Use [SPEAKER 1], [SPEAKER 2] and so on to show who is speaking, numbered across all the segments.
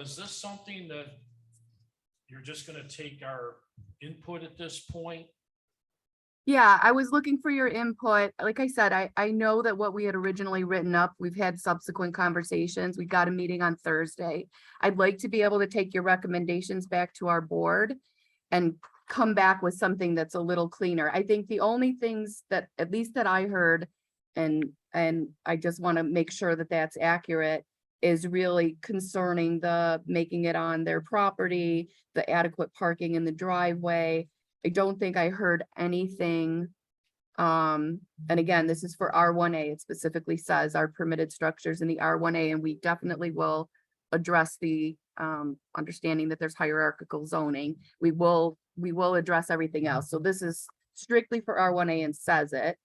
[SPEAKER 1] Is this something that you're just gonna take our input at this point?
[SPEAKER 2] Yeah, I was looking for your input. Like I said, I, I know that what we had originally written up, we've had subsequent conversations. We got a meeting on Thursday. I'd like to be able to take your recommendations back to our board and come back with something that's a little cleaner. I think the only things that, at least that I heard, and, and I just want to make sure that that's accurate, is really concerning the making it on their property, the adequate parking in the driveway, I don't think I heard anything. Um, and again, this is for R one A. It specifically says our permitted structures in the R one A, and we definitely will address the um, understanding that there's hierarchical zoning. We will, we will address everything else. So this is strictly for R one A and says it.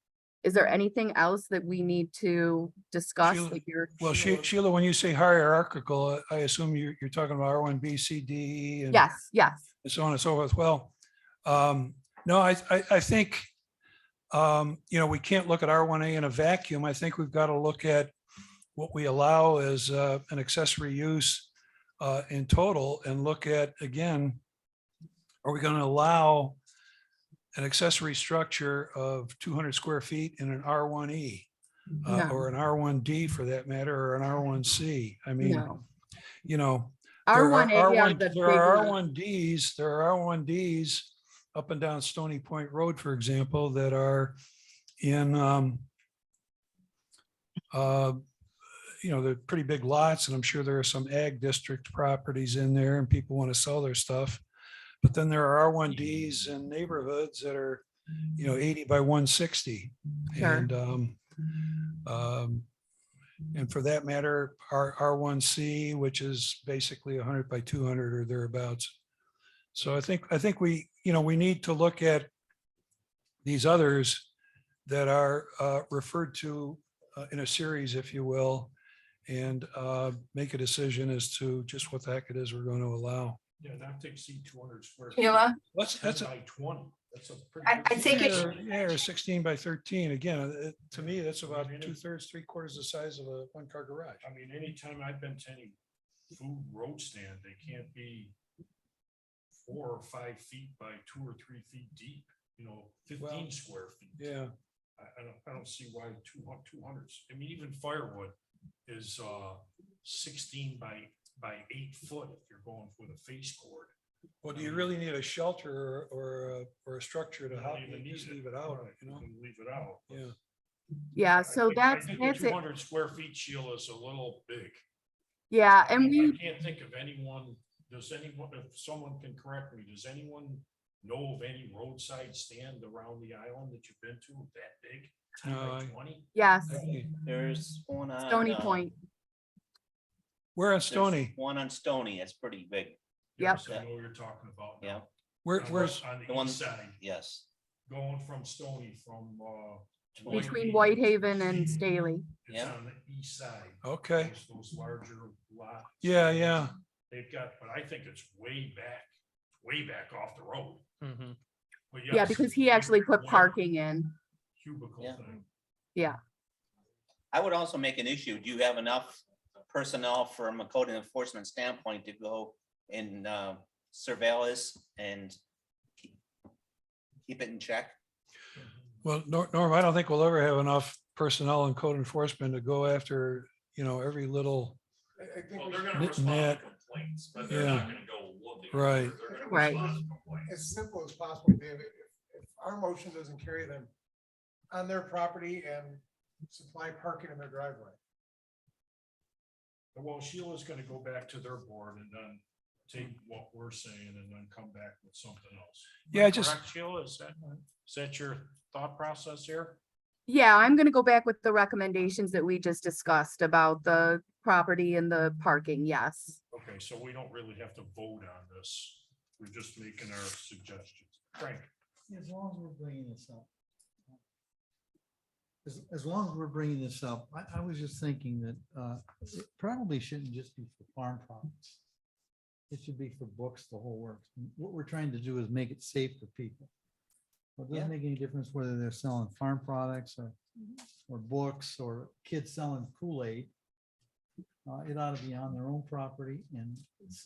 [SPEAKER 2] Is there anything else that we need to discuss
[SPEAKER 3] Sheila-
[SPEAKER 2] that you're?
[SPEAKER 3] Well, She- Sheila, when you say hierarchical, I assume you're, you're talking about R one, B, C, D. and-
[SPEAKER 2] Yes, yes.
[SPEAKER 3] and so on and so forth. Well, um, no, I, I, I think, um, you know, we can't look at R1A in a vacuum. I think we've got to look at what we allow as, uh, an accessory use, uh, in total and look at, again, are we going to allow an accessory structure of 200 square feet in an R1E? Uh,
[SPEAKER 2] No.
[SPEAKER 3] or an R1D for that matter, or an R1C? I mean,
[SPEAKER 2] No.
[SPEAKER 3] you know,
[SPEAKER 2] R
[SPEAKER 3] there
[SPEAKER 2] one A.
[SPEAKER 3] are R1 There are R one Ds, there are R one Ds up and down Stony Point Road, for example, that are in, um, uh, you know, they're pretty big lots and I'm sure there are some ag district properties in there and people want to sell their stuff. But then there are R one Ds in neighborhoods that are, you know, eighty by one sixty.
[SPEAKER 2] Sure.
[SPEAKER 3] And, um, um, and for that matter, our R1C, which is basically 100 by 200 or thereabouts. So I think, I think we, you know, we need to look at these others that are uh, referred to uh, in a series, if you will, and uh, make a decision as to just what the heck it is we're going to allow.
[SPEAKER 1] Yeah, not to exceed two hundred square. feet.
[SPEAKER 4] Sheila,
[SPEAKER 3] What's, that's,
[SPEAKER 1] That's
[SPEAKER 3] a-
[SPEAKER 1] by twenty, that's a pretty.
[SPEAKER 4] I- I
[SPEAKER 1] big-
[SPEAKER 4] think it-
[SPEAKER 3] yeah, or- yeah, or 16 by 13. Again, uh, to me, that's about two thirds, three quarters the size of a one car garage.
[SPEAKER 1] I mean, anytime I've been to any food road stand, they can't be four or five feet by two or three feet deep, you know, fifteen
[SPEAKER 3] Well,
[SPEAKER 1] square feet.
[SPEAKER 3] Yeah.
[SPEAKER 1] I, I don't, I don't see why two, hun- two hundreds, I mean, even firewood is, uh, sixteen by, by eight foot if you're going with a face cord.
[SPEAKER 3] Well, do you really need a shelter or- or, a- or a structure to
[SPEAKER 1] You
[SPEAKER 3] help
[SPEAKER 1] don't even
[SPEAKER 3] you just
[SPEAKER 1] need
[SPEAKER 3] leave it out, you know?
[SPEAKER 1] can Leave it out.
[SPEAKER 3] Yeah.
[SPEAKER 2] Yeah, Uh, so that's, that's
[SPEAKER 1] Two
[SPEAKER 2] it.
[SPEAKER 1] hundred square feet, Sheila, is a little big.
[SPEAKER 2] Yeah,
[SPEAKER 1] I
[SPEAKER 2] and we.
[SPEAKER 1] can't think of anyone, does anyone, if someone can correct me, does anyone know of any roadside stand around the island that you've been to that big? 10 by
[SPEAKER 3] No, I-
[SPEAKER 1] 20?
[SPEAKER 2] Yes,
[SPEAKER 5] There's one on.
[SPEAKER 2] Stony
[SPEAKER 5] uh,
[SPEAKER 2] Point.
[SPEAKER 3] We're on
[SPEAKER 5] there's
[SPEAKER 3] Stony.
[SPEAKER 5] One on Stony, that's pretty big,
[SPEAKER 2] Yep.
[SPEAKER 1] Yes, I know what you're talking about.
[SPEAKER 5] yeah,
[SPEAKER 1] now.
[SPEAKER 3] We're,
[SPEAKER 1] On the-
[SPEAKER 3] we're,
[SPEAKER 1] On
[SPEAKER 5] the
[SPEAKER 1] the
[SPEAKER 5] one-
[SPEAKER 1] east side,
[SPEAKER 5] yes.
[SPEAKER 1] going from Stony, from, uh.
[SPEAKER 2] Between Whitehaven and Staley.
[SPEAKER 1] It's
[SPEAKER 5] Yeah.
[SPEAKER 1] on the east side.
[SPEAKER 3] okay.
[SPEAKER 1] Those- Those larger lots.
[SPEAKER 3] Yeah, yeah.
[SPEAKER 1] They've got, but I think it's way back, way back off the road. But
[SPEAKER 2] Yeah,
[SPEAKER 1] yes,
[SPEAKER 2] because he actually put
[SPEAKER 1] one
[SPEAKER 2] parking in.
[SPEAKER 1] Cubicle
[SPEAKER 5] Yeah.
[SPEAKER 1] thing.
[SPEAKER 5] I would also make an issue, do you have enough personnel from a code enforcement standpoint to go and uh, surveil this and keep- keep it in check?
[SPEAKER 3] Well, Nor- Norm, I don't think we'll ever have enough personnel and code enforcement to go after, you know, every little,
[SPEAKER 1] Well, they're gonna
[SPEAKER 3] Knit
[SPEAKER 1] respond
[SPEAKER 3] knit.
[SPEAKER 1] to complaints, but they're not
[SPEAKER 3] Yeah.
[SPEAKER 1] gonna go looking.
[SPEAKER 3] Right.
[SPEAKER 1] They're gonna
[SPEAKER 2] Right.
[SPEAKER 1] respond to complaints.
[SPEAKER 6] as simple as possible, David, if, if our motion doesn't carry them on their property and supply parking in their driveway.
[SPEAKER 1] Well, Sheila's gonna go back to their board and then take what we're saying and then come back with something else. Am I
[SPEAKER 3] Yeah, I just-
[SPEAKER 1] correct, Sheila, is that, is that your thought process here?
[SPEAKER 2] Yeah, I'm gonna go back with the recommendations that we just discussed about the property and the parking, yes.
[SPEAKER 1] Okay, so we don't really have to vote on this. We're just making our suggestions. Frank,
[SPEAKER 7] As long as we're bringing this up. As, as long as we're bringing this up, I, I was just thinking that, uh, it probably shouldn't just be for farm products. It should be for books, the whole works. What we're trying to do is make it safe for people. Well, It doesn't make any difference whether they're selling farm products or, or books or kids selling Kool-Aid. Uh, it ought to be on their own property and